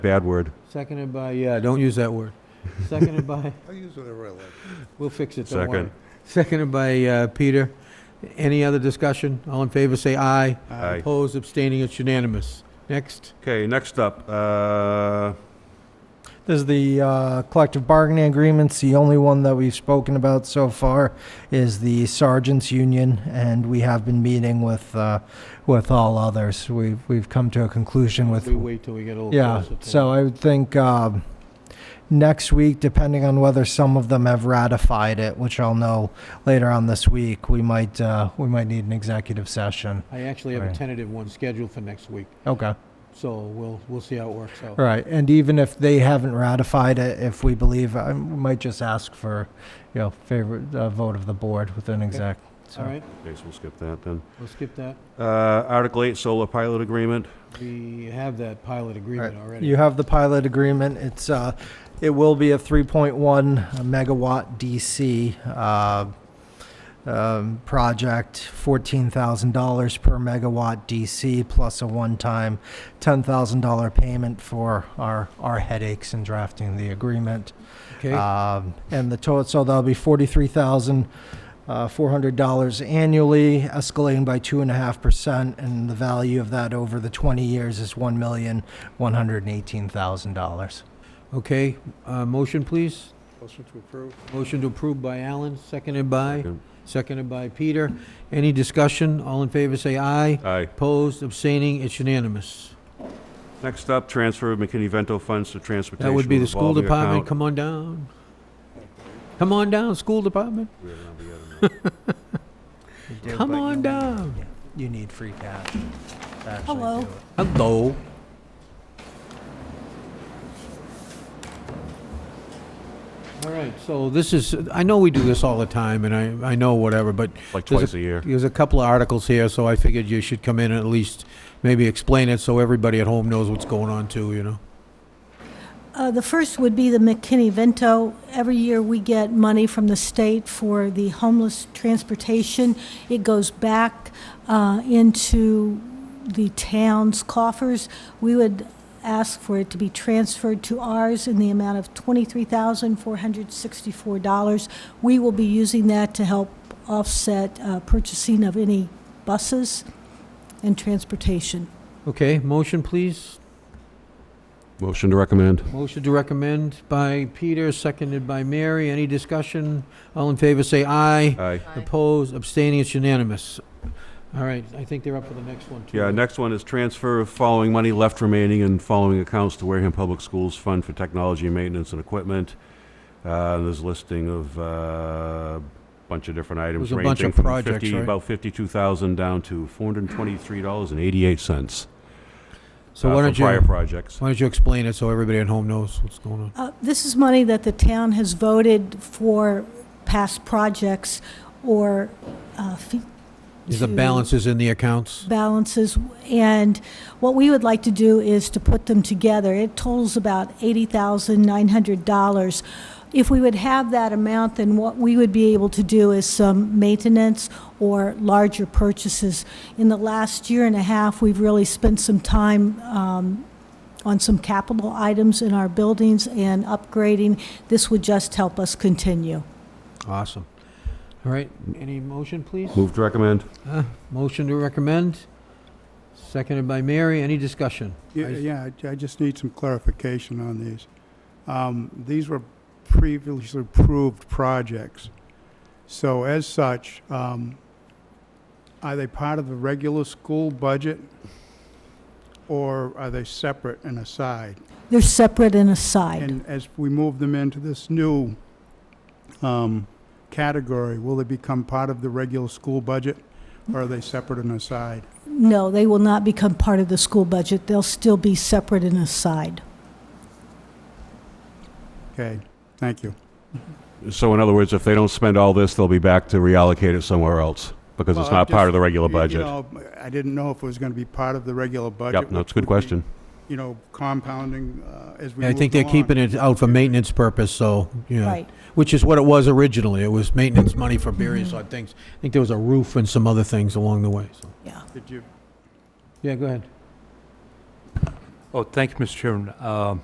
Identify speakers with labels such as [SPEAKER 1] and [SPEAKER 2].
[SPEAKER 1] Bad word.
[SPEAKER 2] Seconded by, yeah, don't use that word. Seconded by,
[SPEAKER 3] I use whatever I like.
[SPEAKER 2] we'll fix it, don't
[SPEAKER 1] Second.
[SPEAKER 2] worry. Seconded by uh, Peter. Any other discussion? All in favor, say aye.
[SPEAKER 1] Aye.
[SPEAKER 2] Opposed, abstaining, it's unanimous. Next,
[SPEAKER 1] Okay, next up, uh,
[SPEAKER 4] This is the uh, collective bargaining agreements. The only one that we've spoken about so far is the sergeants' union, and we have been meeting with uh, with all others. We've we've come to a conclusion with
[SPEAKER 2] we wait till we get a little
[SPEAKER 4] yeah.
[SPEAKER 2] closer. to it.
[SPEAKER 4] So I would think um, next week, depending on whether some of them have ratified it, which I'll know later on this week, we might uh, we might need an executive session.
[SPEAKER 2] I actually have a
[SPEAKER 4] Right.
[SPEAKER 2] tentative one scheduled for next week,
[SPEAKER 4] Okay.
[SPEAKER 2] so we'll, we'll see how it works out.
[SPEAKER 4] Right, and even if they haven't ratified it, if we believe, I might just ask for, you know, favorite uh, vote of the board with an exec. so.
[SPEAKER 2] All right,
[SPEAKER 1] okay, so we'll skip that then.
[SPEAKER 2] we'll skip that.
[SPEAKER 1] Uh, Article 8, solar pilot agreement.
[SPEAKER 2] We have that pilot agreement
[SPEAKER 4] Right.
[SPEAKER 2] already.
[SPEAKER 4] You have the pilot agreement. It's, uh, it will be a 3.1 megawatt DC uh, um, project, $14,000 per megawatt DC plus a one-time $10,000 payment for our, our headaches in drafting the agreement.
[SPEAKER 1] Ah,
[SPEAKER 2] Okay,
[SPEAKER 4] Um, and the total, so that'll be forty-three thousand, uh, four hundred dollars annually, escalating by two and a half percent, and the value of that over the twenty years is one million, one hundred and eighteen thousand dollars.
[SPEAKER 2] okay, uh, motion, please.
[SPEAKER 3] Motion to approve?
[SPEAKER 2] Motion to approve by Alan, seconded by,
[SPEAKER 1] Second.
[SPEAKER 2] seconded by Peter. Any discussion? All in favor, say aye.
[SPEAKER 1] Aye.
[SPEAKER 2] Opposed, abstaining, it's unanimous.
[SPEAKER 1] Next up, transfer of McKinney-Vento funds to transportation.
[SPEAKER 2] That would be the school
[SPEAKER 1] revolving
[SPEAKER 2] department,
[SPEAKER 1] account.
[SPEAKER 2] come on down. Come on down, school department,
[SPEAKER 1] We're gonna be getting that.
[SPEAKER 2] come on down.
[SPEAKER 4] You need free cash. to actually
[SPEAKER 5] Hello.
[SPEAKER 4] do it.
[SPEAKER 2] Hello. All right, so this is, I know we do this all the time, and I, I know whatever, but
[SPEAKER 1] Like
[SPEAKER 2] There's
[SPEAKER 1] twice a year.
[SPEAKER 2] there's a couple of articles here, so I figured you should come in and at least maybe explain it so everybody at home knows what's going on too, you know?
[SPEAKER 5] Uh, The first would be the McKinney-Vento. Every year, we get money from the state for the homeless transportation. It goes back uh, into the town's coffers. We would ask for it to be transferred to ours in the amount of $23,464. We will be using that to help offset uh, purchasing of any buses and transportation.
[SPEAKER 2] Okay, motion, please.
[SPEAKER 1] Motion to recommend.
[SPEAKER 2] Motion to recommend by Peter, seconded by Mary. Any discussion? All in favor, say aye.
[SPEAKER 1] Aye.
[SPEAKER 2] Opposed, abstaining, it's unanimous. All right, I think they're up for the next one, too.
[SPEAKER 1] Yeah, next one is transfer of following money left remaining and following accounts to Wareham Public Schools Fund for Technology, Maintenance, and Equipment. Uh, There's a listing of a bunch of different items.
[SPEAKER 2] There's a bunch
[SPEAKER 1] ranging
[SPEAKER 2] of
[SPEAKER 1] from
[SPEAKER 2] projects,
[SPEAKER 1] 50
[SPEAKER 2] right?
[SPEAKER 1] About 52,000 down to $423.88.
[SPEAKER 2] So
[SPEAKER 1] uh,
[SPEAKER 2] why
[SPEAKER 1] for
[SPEAKER 2] don't you,
[SPEAKER 1] Prior
[SPEAKER 2] why
[SPEAKER 1] projects.
[SPEAKER 2] don't you explain it so everybody at home knows what's going on?
[SPEAKER 5] Uh, This is money that the town has voted for past projects or uh, fee-
[SPEAKER 2] Is the
[SPEAKER 5] to-
[SPEAKER 2] balances in the accounts?
[SPEAKER 5] balances, and what we would like to do is to put them together. It totals about $80,900. If we would have that amount, then what we would be able to do is some maintenance or larger purchases. In the last year and a half, we've really spent some time um, on some capital items in our buildings and upgrading. This would just help us continue.
[SPEAKER 2] Awesome. All right, any motion, please?
[SPEAKER 1] Move to recommend.
[SPEAKER 2] Uh, Motion to recommend, seconded by Mary. Any discussion?
[SPEAKER 3] Yeah, yeah, I- I just need some clarification on these. Um, These were previously approved projects. So as such, um, are they part of the regular school budget? Or are they separate and aside?
[SPEAKER 5] They're separate and aside.
[SPEAKER 3] And as we move them into this new um, category, will they become part of the regular school budget? Or are they separate and aside?
[SPEAKER 5] No, they will not become part of the school budget. They'll still be separate and aside.
[SPEAKER 3] Okay, thank you.
[SPEAKER 1] So in other words, if they don't spend all this, they'll be back to reallocate it somewhere else, because it's
[SPEAKER 3] Well,
[SPEAKER 1] not
[SPEAKER 3] I'm
[SPEAKER 1] part of
[SPEAKER 3] just-
[SPEAKER 1] the regular
[SPEAKER 3] You- you
[SPEAKER 1] budget.
[SPEAKER 3] know, I didn't know if it was going to be part of the regular budget.
[SPEAKER 1] Yep, no,
[SPEAKER 3] which
[SPEAKER 1] it's a good
[SPEAKER 3] would be,
[SPEAKER 1] question.
[SPEAKER 3] You know, compounding uh, as we
[SPEAKER 2] I think they're keeping it out for maintenance purpose, so, yeah.
[SPEAKER 5] Right.
[SPEAKER 2] Which is what it was originally. It was maintenance money for various odd things. I think there was a roof and some other things along the way, so.
[SPEAKER 5] Yeah.
[SPEAKER 3] Did you,
[SPEAKER 2] Yeah, go ahead.
[SPEAKER 6] Oh, thank you, Mr. Chairman. Um,